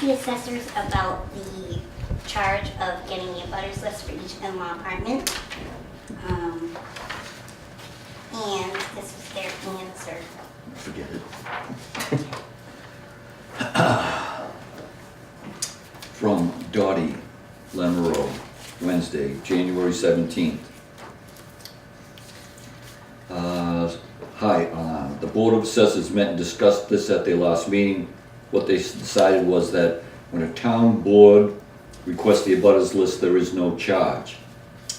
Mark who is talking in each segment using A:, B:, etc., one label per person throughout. A: the assessors about the charge of getting a butters list for each in-law apartment. Um, And this was their answer.
B: Forget it. From Dottie Lamoureux, Wednesday, January 17th. Uh, Hi, uh, the Board of Assessors met and discussed this at their last meeting. What they s- decided was that when a town board requests the abutters list, there is no charge.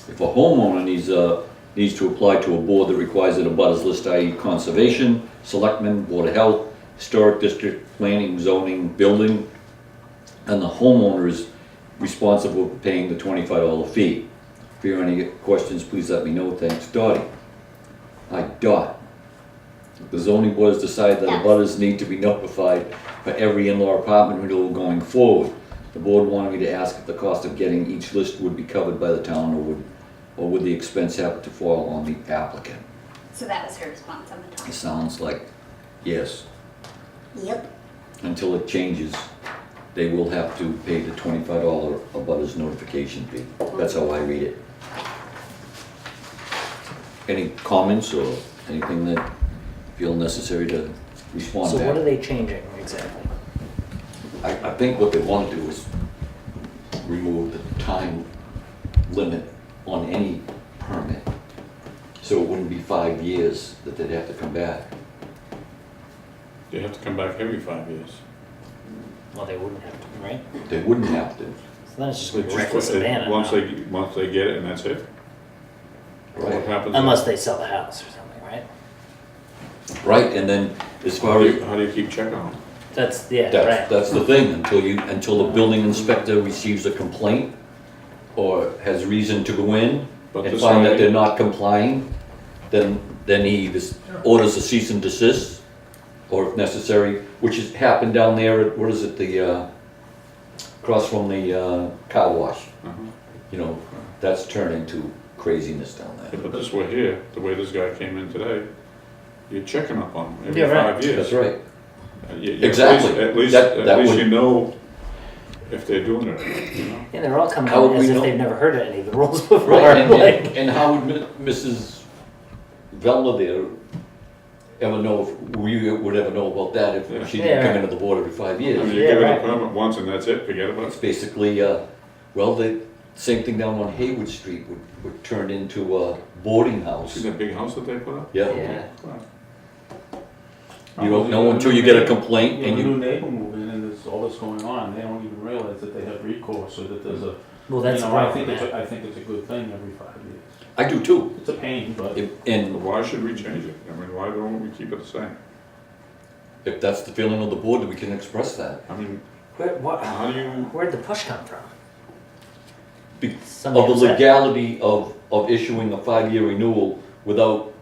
B: If a homeowner needs a, needs to apply to a board that requires an abutters list, i.e. conservation, selectmen, board of health, historic district, planning, zoning, building, and the homeowner is responsible for paying the twenty-five dollar fee. If you have any questions, please let me know, thanks, Dottie. I dot. The zoning board has decided that
A: Yes.
B: abutters need to be notified for every in-law apartment renewal going forward. The board wanted me to ask if the cost of getting each list would be covered by the town or would, or would the expense have to fall on the applicant?
A: So that was her response on the
B: It
A: topic.
B: sounds like, yes,
A: Yep.
B: until it changes, they will have to pay the twenty-five dollar abutters notification fee. That's how I read it. Any comments or anything that feel necessary to respond
C: So
B: back?
C: what are they changing exactly?
B: I, I think what they want to do is remove the time limit on any permit. So it wouldn't be five years that they'd have to come back.
D: They have to come back every five years.
C: Well, they wouldn't have to, right?
B: They wouldn't have to,
C: So then it's just
D: They
C: gonna be
D: just-
C: reckless
D: they-
C: abandon.
D: Once
C: now.
D: they, once they get it and that's it. What
B: right?
D: happens?
C: Unless they sell the house or something, right?
B: Right, and then as
D: How
B: far
D: do
B: as,
D: you, how do you keep check on it?
C: That's, yeah,
B: that's,
C: right.
B: that's the thing, until you, until the building inspector receives a complaint or has reason to go in
D: But
B: and
D: this
B: find that
D: way-
B: they're not complying, then, then he just orders a cease and desist, or if necessary, which has happened down there at, what is it, the, uh, across from the, uh, car wash,
D: Uh-huh.
B: you know, that's turned into craziness down there.
D: Yeah, But this way here, the way this guy came in today, you're checking up on him every
C: Yeah, right.
D: five years.
B: That's right,
D: Uh, you- you- at least-
B: Exactly.
D: At least,
B: That- that
D: at least
B: would-
D: you know if they're doing it, or not, you know?
C: Yeah, they're all coming
B: How would
C: out as
B: we
C: if
B: know?
C: they've never heard of any of the rules before,
B: right, and,
C: like.
B: and- and how would Mi- Mrs. Vella there ever know, if we would ever know about that if she didn't
C: Yeah.
B: come into the board every five years?
D: I mean, you
C: Yeah,
D: give it a
C: right.
D: permit once and that's it, forget about
B: It's
D: it.
B: basically, uh, well, the same thing down on Haywood Street would, would turn into a boarding
D: See
B: house.
D: that big house that they put up?
B: Yeah,
C: Yeah.
D: Wow.
B: you don't know until you get a complaint
E: Yeah,
B: and
E: the
B: you,
E: new neighbor moved in and there's all this going on, they don't even realize that they have recourse or that there's a,
C: Well,
E: you
C: that's the
E: know, I think
C: problem,
E: it's,
C: yeah.
E: a- I think it's a good thing every five years.
B: I do too.
E: It's a pain, but
B: If-
D: But
B: And
D: Why should we change it? I mean, why don't we keep it the same?
B: if that's the feeling of the board, then we can express that.
D: I mean,
C: Where,
D: how
C: what,
D: do you,
C: where'd the push come from?
B: Be- Of
C: Somebody
B: the
C: upset.
B: legality of, of issuing a five-year renewal without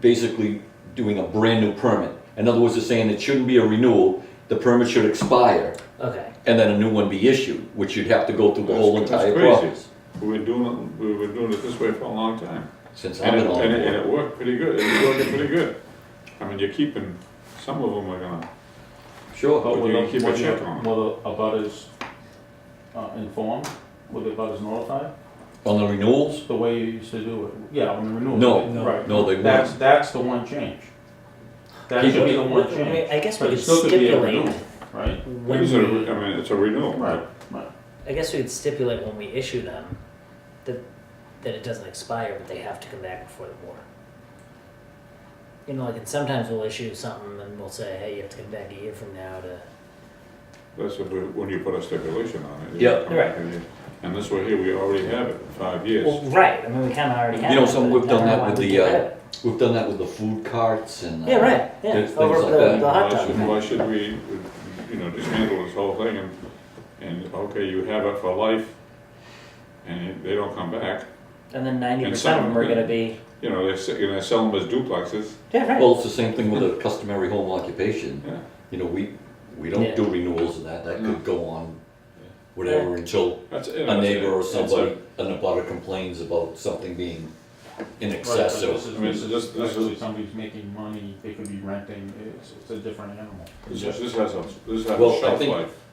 B: basically doing a brand-new permit. In other words, they're saying it shouldn't be a renewal, the permit should expire,
C: Okay,
B: and then a new one be issued, which you'd have to go through the whole
D: That's- that's
B: entire
D: crazy.
B: process.
D: we've been doing it, we've been doing it this way for a long time.
B: Since I've
D: And
B: been
D: it,
B: on
D: and
B: the
D: it, and
B: board.
D: it worked pretty good, it's working pretty good. I mean, you're keeping, some of them are gonna,
B: Sure.
D: But
E: but
D: you
E: whether,
D: keep a check on it.
E: whether, whether about is uh, informed, whether about is notified,
D: Oh.
B: On the renewals?
E: the way you used to do it, yeah, on the renewal.
B: No,
E: Right.
B: no, they
E: That's,
B: weren't.
E: that's the one change. That
B: Keep
E: should be
B: it.
E: the
C: Well,
E: one
C: I mean,
E: change,
C: I guess we
E: But
C: could
E: it still could be a
C: stipulate
E: renewal. right?
C: when
D: it is a re-
C: we,
D: I mean, it's a renewal.
E: Right, right.
C: I guess we could stipulate when we issue them, that, that it doesn't expire, but they have to come back before the board. You know, like, and sometimes we'll issue something and we'll say, hey, you have to come back a year from now to,
D: That's what we- when you put a stipulation on it.
B: Yeah.
C: Right.
D: And this way here, we already have it, five years.
C: well, right, I mean, we kinda already have.
B: You know,
C: it,
B: some
C: but
B: we've
C: I don't
B: done
C: know
B: that
C: why
B: with
C: we
B: the,
C: can't
B: uh,
C: have it.
B: We've done that with the food carts and. uh,
C: Yeah, right, yeah,
B: Things
C: over
B: like
C: the,
B: that.
C: the hot
D: Why
C: dog
D: should,
C: thing.
D: why should we, you know, just handle this whole thing and, and, okay, you have it for life, and they don't come back.
C: And then ninety
D: And
C: percent
D: some-
C: of them are gonna be,
D: You know, they're, se- you know, sell them as duplexes,
C: yeah, right.
B: Well, it's the same thing with a customary home occupation.
D: yeah.
B: You know, we, we don't
C: Yeah.
B: do renewals of that. That
D: No.
B: could go on whatever until
D: That's- you know,
B: a
D: it's
B: neighbor or
D: it's a-
B: somebody, an abutter complains about something being in
E: Right,
B: excess
E: but
B: or.
E: this
D: I mean,
E: is,
D: this-
E: this is
D: this is-
E: actually somebody's making money, they could be renting, it's, it's a different animal.
D: This, this has a, this has a
B: Well, I
D: shelf
B: think-
D: life.